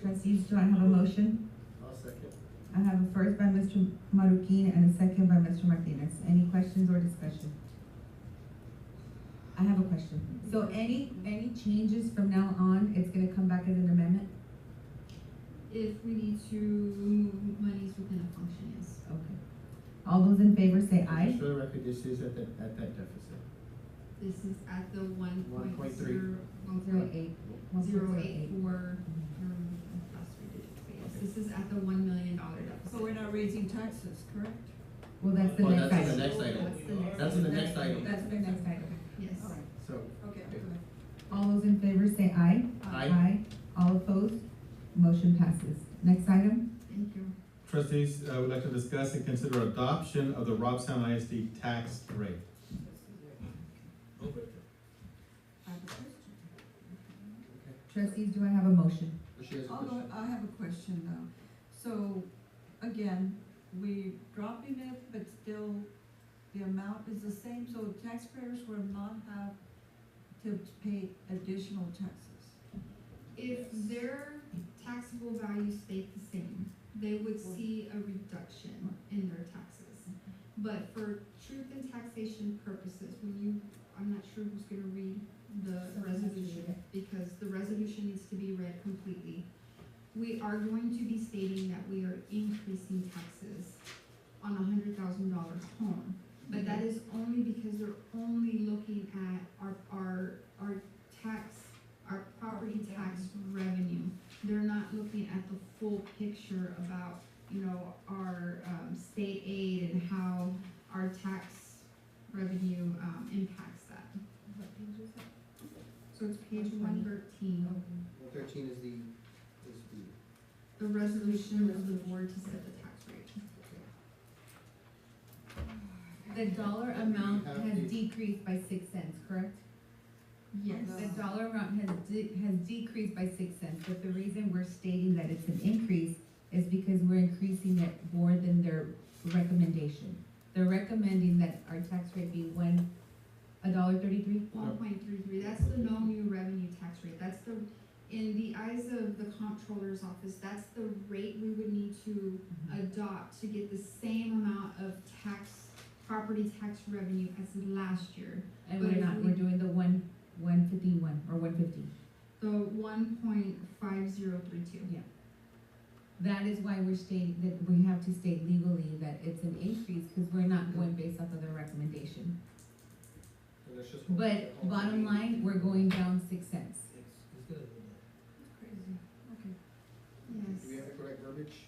Trustees, do I have a motion? I'll second. I have a first by Mr. Marroquin and a second by Mr. Martinez. Any questions or discussion? I have a question. So any, any changes from now on, it's gonna come back as an amendment? If we need to remove monies within a function, yes. Okay. All those in favor say aye. Just For the record, this is at that, at that deficit. This is at the one point 1.3. zero, one Zero point eight. zero eight four. um, that's what we did. But yes, This is at the one million dollar So deficit. we're not raising taxes, correct? Well, that's the Well, next that's in the item. next item. That's the next That's in the next item. That's the next item. Yes. All right, So, okay, I'm good. All those in favor say aye. Aye. All opposed? Motion passes. Next item? Thank you. Trustees, I would like to discuss and consider adoption of the Robstown ISD tax rate. Oh, I have a question. Trustees, do I have a motion? she has a Although, question. I have a question now. So, again, we dropping it, but still the amount is the same, so taxpayers will not have to pay additional taxes. If their taxable value stayed the same, they would see a reduction in their taxes. But for truth and taxation purposes, when you, I'm not sure who's gonna read the Someone has to read resolution, because the resolution needs to be read completely. We are going to be stating that we are increasing taxes on a hundred thousand dollar home. But that is only because they're only looking at our, our, our tax, our property tax revenue. They're not looking at the full picture about, you know, our, um, state aid and how our tax revenue, um, impacts that. So it's page one thirteen, Thirteen is the, is the. the resolution of the board to set the tax rate. The dollar amount has decreased by six cents, correct? Yes, The dollar amount has de- has decreased by six cents, but the reason we're stating that it's an increase is because we're increasing it more than their recommendation. They're recommending that our tax rate be one, a dollar thirty-three? one point three three, that's the no new revenue tax rate, that's the, in the eyes of the comptroller's office, that's the rate we would need to adopt to get the same amount of tax, property tax revenue as last year. And But we're if not, we- we're doing the one, one fifty-one, or one fifty. The one point five zero three two. That is why we're stating, that we have to state legally that it's an increase, because we're not going based off of their recommendation. But bottom line, we're going down six cents. Crazy, okay. Do we Yes, have the correct verbiage?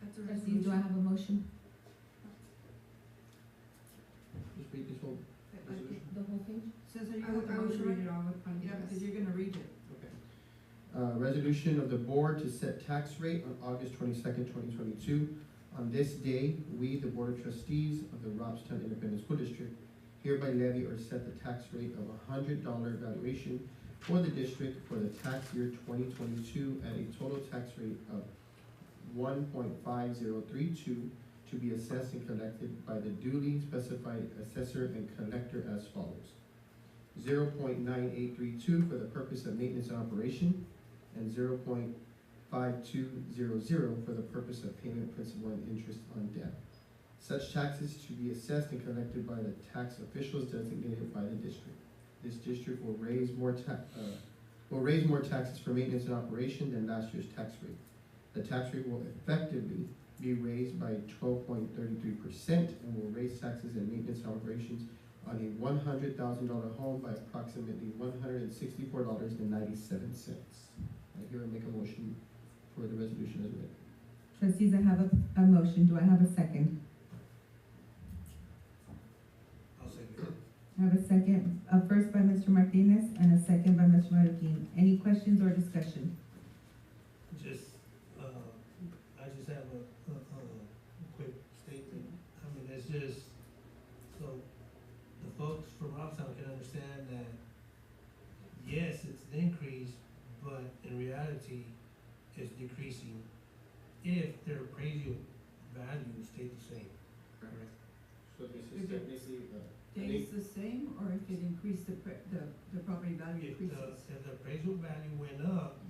That's a Trustees, do I resolution. have a motion? Just read this whole Uh, uh, resolution. The whole page? Says that you I would, got the I would motion read right? it all with Yeah, because Juan. you're gonna read it. Okay. Uh, resolution of the board to set tax rate on August twenty-second, twenty twenty-two. On this day, we, the Board of Trustees of the Robstown Independent School District, hereby levy or set the tax rate of a hundred dollar valuation for the district for the tax year twenty twenty-two at a total tax rate of one point five zero three two to be assessed and collected by the duly specified assessor and collector as follows zero point nine eight three two for the purpose of maintenance and operation, and zero point five two zero zero for the purpose of payment principal and interest on debt. Such taxes to be assessed and collected by the tax officials designated by the district. This district will raise more ta- uh, will raise more taxes for maintenance and operation than last year's tax rate. The tax rate will effectively be raised by twelve point thirty-three percent and will raise taxes and maintenance and operations on a one hundred thousand dollar home by approximately one hundred and sixty-four dollars and ninety-seven cents. I hear and make a motion for the resolution as read. Trustees, I have a, a motion. Do I have a second? I have a second, a first by Mr. Martinez and a second by Mr. Marroquin. Any questions or discussion? Just, uh, I just have a, a, a quick statement. Mm-hmm. I mean, it's just, so the folks from Robstown can understand that, yes, it's an increase, but in reality, it's decreasing if their appraisal value stayed the same, correct? So this is technically, uh, Stays the same, or if it increased the, pre- the, the property value If the, increases? if the appraisal value went up,